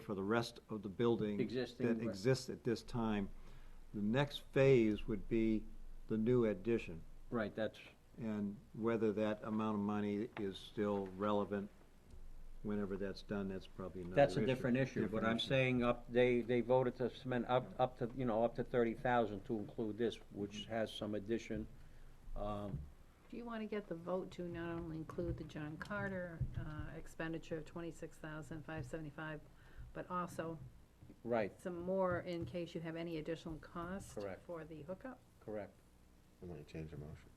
for the rest of the building. Existing, That right. exists at this time. The next phase would be the new addition, Right, that's, and whether that amount of money is still relevant whenever that's done, that's probably another that's a issue. different issue, but I'm issue. saying up, they, they voted to spend up, up to, you know, up to thirty thousand to include this, which Mm-hmm. has some addition. Um, Do you want to get the vote to not only include the John Carter uh, expenditure of twenty-six thousand five seventy-five, but also right, some more in case you have any additional cost Correct. for the hookup? correct, I'm gonna change the motion.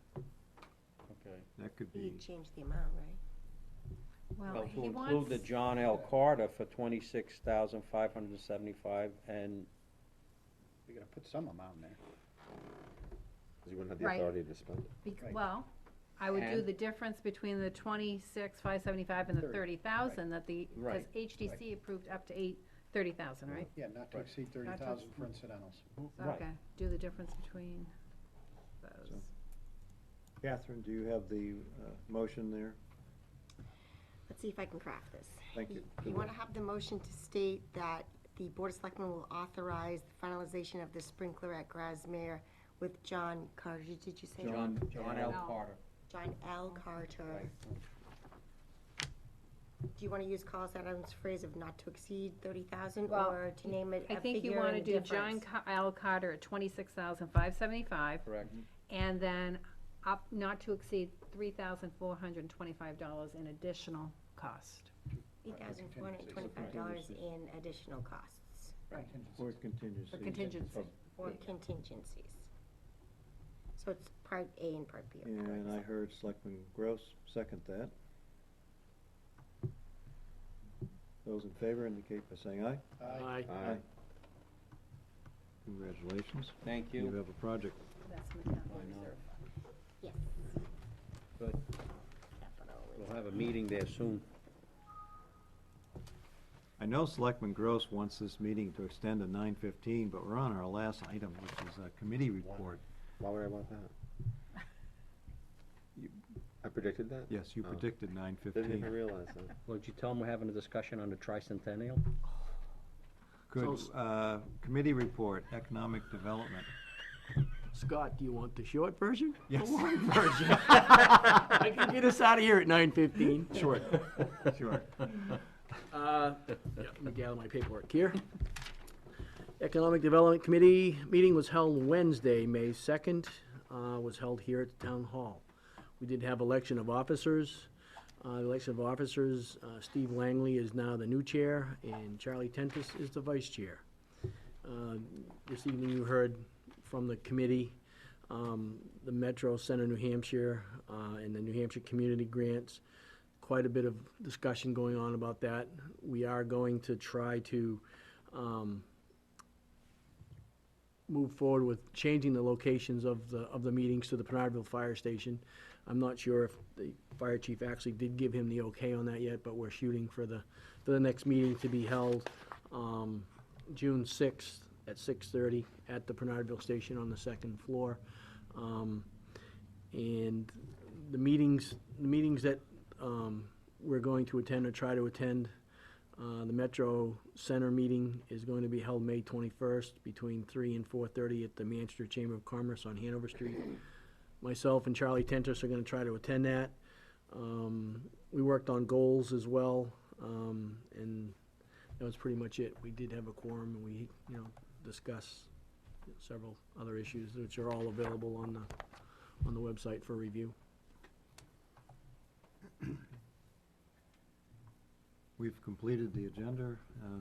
okay. That could You be, changed the amount, right? Well, Well, to he include wants, the John L. Carter for twenty-six thousand five hundred and seventy-five and, We gotta put some amount in there. Cause you wouldn't have the Right. authority to spend it. bec- Right. well, I would do And- the difference between the twenty-six five seventy-five and the thirty Thirty, thousand that the, because Right, HDC approved up to eight, thirty thousand, right? Yeah, not to Right. exceed thirty Not to thousand for incidentals. So, Right. Okay, do the difference between those. Catherine, do you have the, uh, motion there? Let's see if I can craft this. Thank you. You want to have the motion to state that the Board of Selectmen will authorize the finalization of the sprinkler at Grasmere with John Carter, did you say? John, John L. L. Carter. John L. Carter. Do you want to use Carl Adams' phrase of not to exceed thirty thousand, Well, or to name it I a think you figure want to and do John difference? Ca- L. Carter at twenty-six thousand five seventy-five. Correct. Mm-hmm. And then up, not to exceed three thousand four hundred and twenty-five dollars in additional cost. $8,425 in additional costs For contingency. For contingency. or contingencies. So it's part A and part B. of that. And I heard Selectman Gross second that. Those in favor indicate by saying aye. Aye. Aye. Congratulations. Thank You you. have a project. That's from the capital I know. reserve. Yes, Good. definitely. We'll have a meeting there soon. I know Selectman Gross wants this meeting to extend to nine fifteen, but we're on our last item, which is a committee report. Why would I want that? You- I predicted that? Yes, you Oh. predicted nine Didn't even fifteen. realize that. Would you tell them we're having a discussion on the tricentennial? Good, uh, committee report, economic development. Scott, do you want the short version? Yes. The long version? I can get us out of here at nine fifteen. Sure, sure. Uh, yeah, Let me gather my paperwork here. Economic Development Committee meeting was held Wednesday, May 2nd, uh, was held here at the Town Hall. We did have election of officers. Uh, The Election of officers, uh, Steve Langley is now the new chair, and Charlie Tentis is the vice chair. Uh, This evening, you heard from the committee, um, the Metro Center New Hampshire uh, and the New Hampshire Community Grants quite a bit of discussion going on about that. We are going to try to um, move forward with changing the locations of the, of the meetings to the Pinardville Fire Station. I'm not sure if the fire chief actually did give him the okay on that yet, but we're shooting for the, for the next meeting to be held um, June 6th at 6:30 at the Pinardville Station on the second floor. Um, and the meetings, the meetings that um, we're going to attend or try to attend, uh, the Metro Center meeting is going to be held May 21st between 3 and 4:30 at the Manchester Chamber of Commerce on Hanover Street. Myself and Charlie Tentis are going to try to attend that. Um, We worked on goals as well, um, and that was pretty much it. We did have a quorum, and we, you know, discussed several other issues, which are all available on the on the website for review. We've completed the agenda. Uh,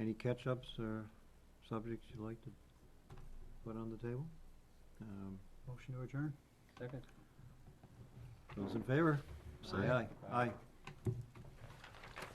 Any catch-ups or subjects you'd like to put on the table? Um, Motion to adjourn? Second. Those in favor, say aye. Aye.